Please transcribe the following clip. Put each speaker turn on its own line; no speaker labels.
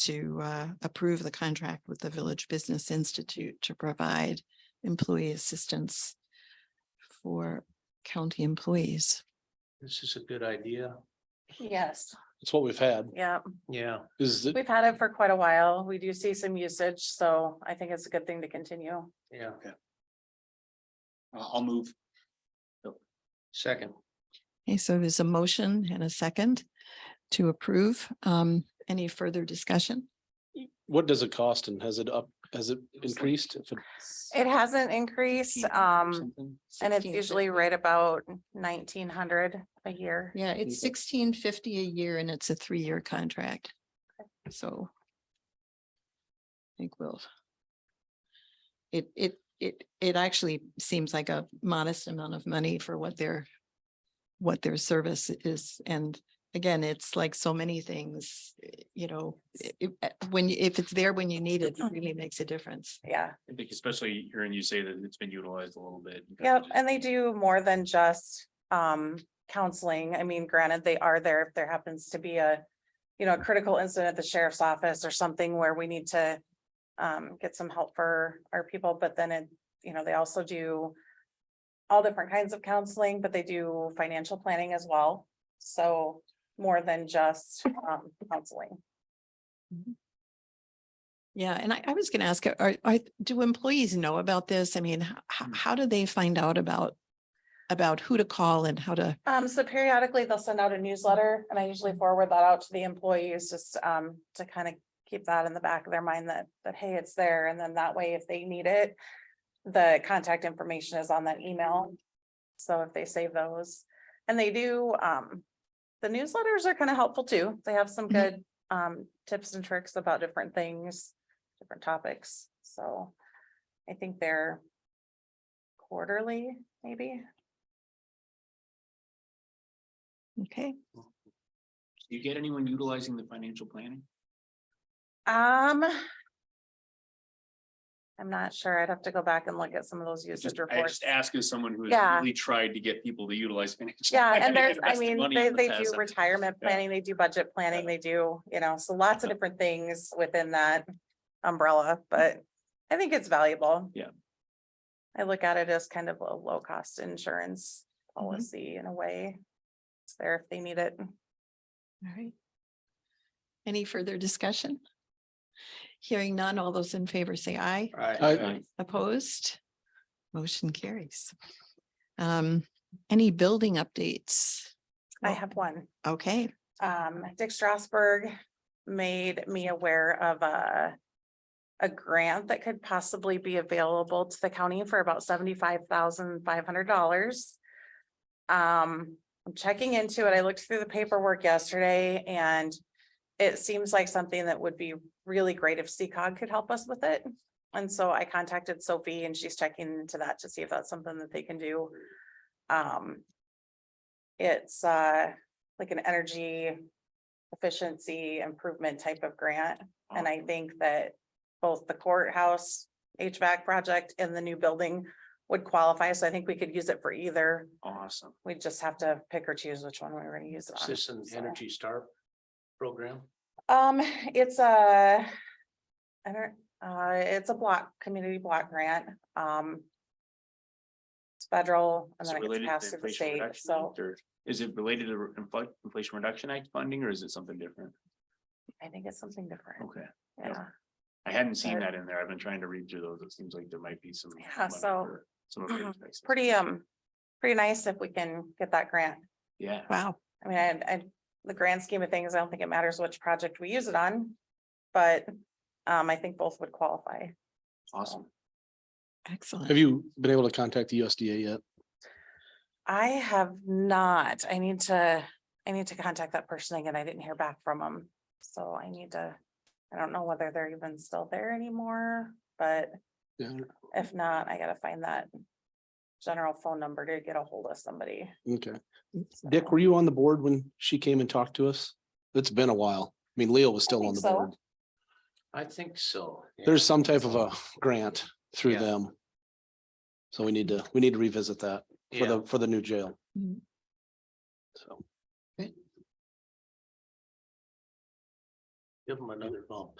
to uh, approve the contract with the Village Business Institute to provide employee assistance for county employees.
This is a good idea.
Yes,
It's what we've had,
yeah,
Yeah,
is that,
we've had it for quite a while. We do see some usage, so I think it's a good thing to continue.
yeah.
I'll I'll move.
Second,
Okay, so there's a motion and a second to approve. Um, Any further discussion?
what does it cost and has it up, has it increased? If it-
It hasn't increased, um, and it's
1650.
usually right about nineteen hundred a year.
Yeah, it's sixteen fifty a year and it's a three-year contract. So. I think we'll. It, it, it, it actually seems like a modest amount of money for what their, what their service is. And again, it's like so many things, eh, you know, i- i- eh, when, you- if it's there when you need it, it really makes a difference.
Yeah,
I think especially hearing you say that it's been utilized a little bit. you kinda
yep,
just-
and they do more than just, um, counseling. I mean, granted, they are there if there happens to be a, you know, a critical incident at the sheriff's office or something where we need to um, get some help for our people, but then it, you know, they also do all different kinds of counseling, but they do financial planning as well. So more than just, um, counseling.
Yeah, and I, I was gonna ask, are, are, do employees know about this? I mean, how,
Mm.
how do they find out about? About who to call and how to,
Um, so periodically they'll send out a newsletter and I usually forward that out to the employees just, um, to kind of keep that in the back of their mind that, that, hey, it's there. And then that way, if they need it, the contact information is on that email. So if they save those and they do, um, the newsletters are kind of helpful too. They have some
Mhm.
good, um, tips and tricks about different things, different topics. So I think they're quarterly, maybe.
okay,
Do you get anyone utilizing the financial planning?
Um. I'm not sure. I'd have to go back and look at some of those usage
Just, I
reports.
just ask as someone who
Yeah.
has really tried to get people to utilize. financial
Yeah,
planning
and there's, I
invest their
mean,
money
they,
in
they
the
do
past.
retirement
Yeah.
planning, they do budget planning, they do, you know, so lots of different things within that umbrella, but I think it's valuable.
Yeah.
I look at it as kind of a low-cost insurance
Mm-hmm.
policy in a way. It's there if they need it.
all right. Any further discussion? Hearing none, all those in favor say aye.
all right.
I-
Opposed? Motion carries. Um, any building updates?
I
Oh,
have one.
Okay,
um, Dick Strasberg made me aware of a a grant that could possibly be available to the county for about seventy-five thousand five hundred dollars. Um, I'm checking into it. I looked through the paperwork yesterday and it seems like something that would be really great if CCOG could help us with it. And so I contacted Sophie and she's checking into that to see if that's something that they can do. Um, it's, uh, like an energy efficiency improvement type of grant. And I think that both the courthouse HVAC project and the new building would qualify. So I think we could use it for either.
Awesome.
We just have to pick or choose which one we were gonna use it
Is
on.
this an
so.
Energy Star program?
Um, it's a, I don't, uh, it's a block, community block grant, um. It's federal and
Is
then it
it
gets
related
passed
to
through the
Inflation
state,
Reduction
so
Act, or Is it related to infl- Inflation Reduction Act funding or is it something different?
I think it's something different,
Okay, yeah.
yeah.
I hadn't seen
But-
that in there. I've been trying to read through those. It seems like there might be some.
Yeah,
money
so-
for Some of those. places.
pretty, um, pretty nice if we can get that grant.
Yeah.
wow,
I mean, I, I, the grand scheme of things, I don't think it matters which project we use it on. But, um, I think both would qualify.
Awesome.
excellent.
Have you been able to contact the USDA yet?
I have not, I need to, I need to contact that person again. I didn't hear back from them. So I need to, I don't know whether they're even still there anymore, but
Yeah,
if not, I gotta find that general phone number to get a hold of somebody.
okay. Dick, were you on the board when she came and talked to us? It's been a while. I mean, Leo was still on
think
the
so.
board.
I think so. yeah.
There's some type of a grant through
Yeah.
them. So we need to, we need to revisit that for
Yeah,
the, for the new jail.
Mhm.
So.
give them another bump.